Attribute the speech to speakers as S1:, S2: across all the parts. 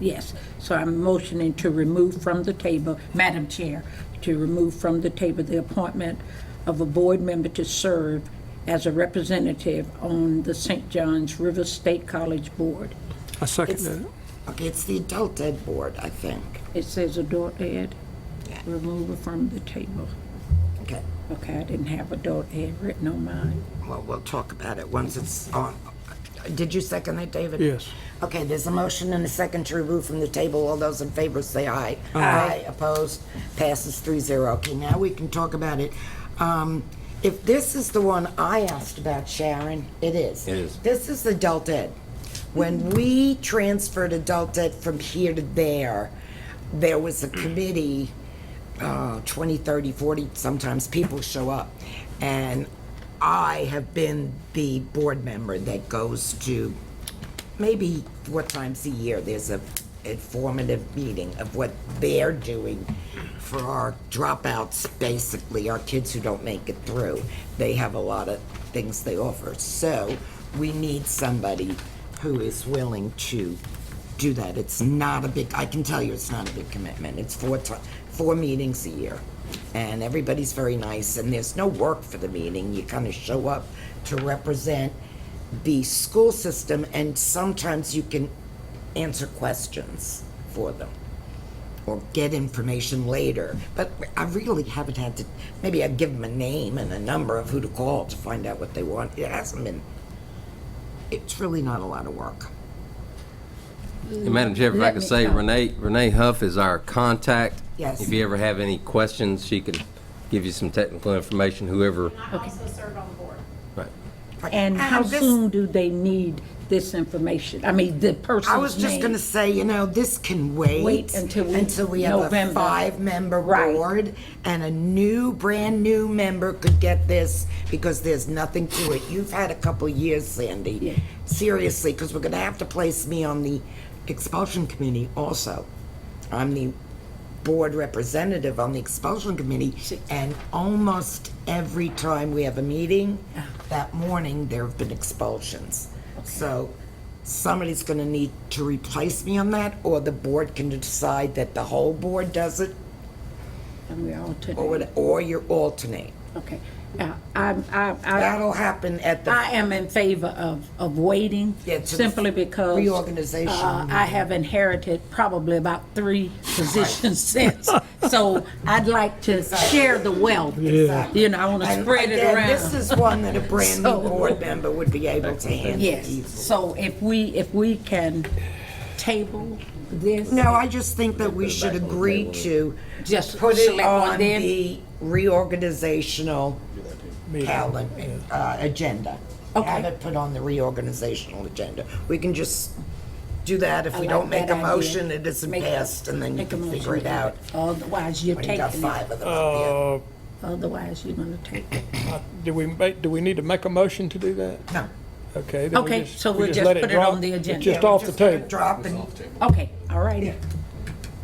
S1: Yes, so I'm motioning to remove from the table, Madam Chair, to remove from the table the appointment of a board member to serve as a representative on the St. John's River State College Board.
S2: I second
S3: It's-
S2: that.
S3: Okay, it's the adult ed board, I think.
S1: It says adult ed,
S3: Yeah.
S1: removal from the table.
S3: Okay,
S1: Okay, I didn't have adult ed written on mine.
S3: well, we'll talk about it once it's on. Did you second that, David?
S2: Yes.
S3: Okay, there's a motion and a second to remove from the table. All those in favor say aye. Aye. Opposed? Passes three zero. Okay, now we can talk about it. Um, If this is the one I asked about, Sharon, it is. It is. This is adult ed. When we transferred adult ed from here to there, there was a committee, uh, 20, 30, 40, sometimes people show up. And I have been the board member that goes to maybe four times a year, there's a informative meeting of what they're doing for our dropouts, basically, our kids who don't make it through. They have a lot of things they offer. So we need somebody who is willing to do that. It's not a big, I can tell you it's not a big commitment. It's four ti, four meetings a year. And everybody's very nice, and there's no work for the meeting. You kind of show up to represent the school system, and sometimes you can answer questions for them or get information later. But I really haven't had to, maybe I'd give them a name and a number of who to call to find out what they want. It hasn't been, it's really not a lot of work.
S4: And Madam Chair, if I
S1: Let
S4: could
S1: me
S4: say
S1: come.
S4: Renee, Renee Huff is our contact.
S3: Yes.
S4: If you ever have any questions, she can give you some technical information, whoever.
S5: I also serve on the board.
S4: Right.
S1: And how
S3: this-
S1: soon do they need this information? I mean, the person's name?
S3: I was just going to say, you know, this can wait.
S1: Wait until we-
S3: until we have
S1: November.
S3: a five-member
S1: Right.
S3: board, and a new, brand-new member could get this, because there's nothing to it. You've had a couple years,
S1: Yeah.
S3: Sandy. Seriously, because we're going to have to place me on the expulsion committee also. I'm the board representative on the expulsion committee, and almost every time we have a meeting, that morning, there have been expulsions. So somebody's going to need to replace me on that, or the board can decide that the whole board does it,
S1: And we all today.
S3: or, what- or you alternate.
S1: Okay. Uh, I'm, I, I,
S3: That'll happen at the,
S1: I am in favor of, of waiting
S3: Yeah, to the
S1: simply because.
S3: reorganization.
S1: uh, I have inherited probably about three positions since. So I'd like to share the wealth. You know, I want to
S3: And
S1: spread it
S3: again,
S1: around.
S3: This is one that a brand new
S1: So-
S3: board member would be able to handle.
S1: Yes. So if we, if we can table this.
S3: No, I just think that we should agree to
S1: Just
S3: put it
S1: select one
S3: on
S1: then?
S3: the reorganizational calendar, uh, agenda.
S1: Okay.
S3: Have it put on the reorganizational agenda. We can just do that. If
S1: I
S3: we
S1: like
S3: don't make
S1: that
S3: a
S1: idea.
S3: motion, it isn't
S1: Make-
S3: passed, and then you
S1: make a
S3: can
S1: motion
S3: figure it
S1: to do
S3: out.
S1: Otherwise, you're
S3: When you
S1: taking
S3: got
S1: it.
S3: five of them up
S2: Uh,
S1: Otherwise, you're gonna take it.
S2: Do we make, do we need to make a motion to do that?
S3: there. No.
S2: Okay. then we
S1: Okay, so
S2: we
S1: we'll just
S2: let
S1: put it
S2: drop.
S1: on the
S2: It's
S1: agenda.
S2: just
S3: Yeah,
S2: off
S3: we're
S2: the
S3: just gonna
S2: table.
S3: Drop and
S1: Okay, all righty.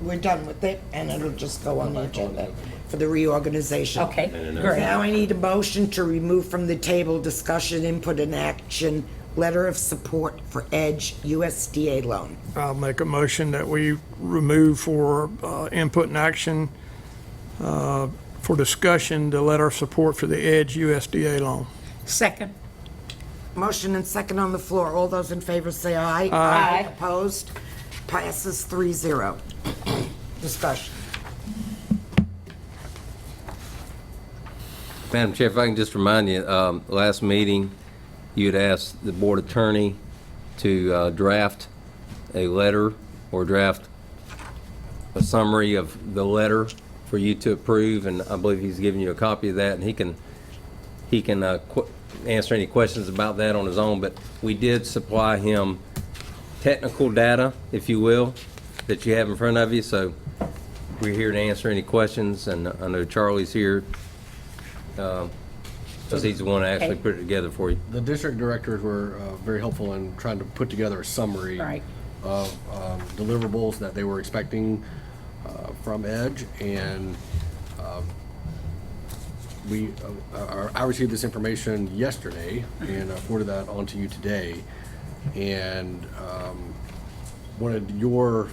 S3: we're done with it, and it'll just go on the agenda for the reorganization.
S1: Okay, great.
S3: Now I need a motion to remove from the table discussion, input, and action, letter of support for Edge USDA loan.
S2: I'll make a motion that we remove for uh, input and action, uh, for discussion, the letter of support for the Edge USDA loan.
S1: Second.
S3: Motion and second on the floor. All those in favor say aye. Aye. Opposed? Passes 3-0. Discussion.
S4: Madam Chair, if I can just remind you, um, last meeting, you had asked the board attorney to uh, draft a letter or draft a summary of the letter for you to approve, and I believe he's given you a copy of that, and he can, he can uh, qu- answer any questions about that on his own, but we did supply him technical data, if you will, that you have in front of you, so we're here to answer any questions, and I know Charlie's here because he's the one that actually
S1: Okay.
S4: put it together for you.
S6: The district directors were uh, very helpful in trying to put together a summary
S1: Right.
S6: of um, deliverables that they were expecting uh, from Edge, and um, we, uh, uh, I received this information yesterday and I forwarded that on to you today, and um, wanted your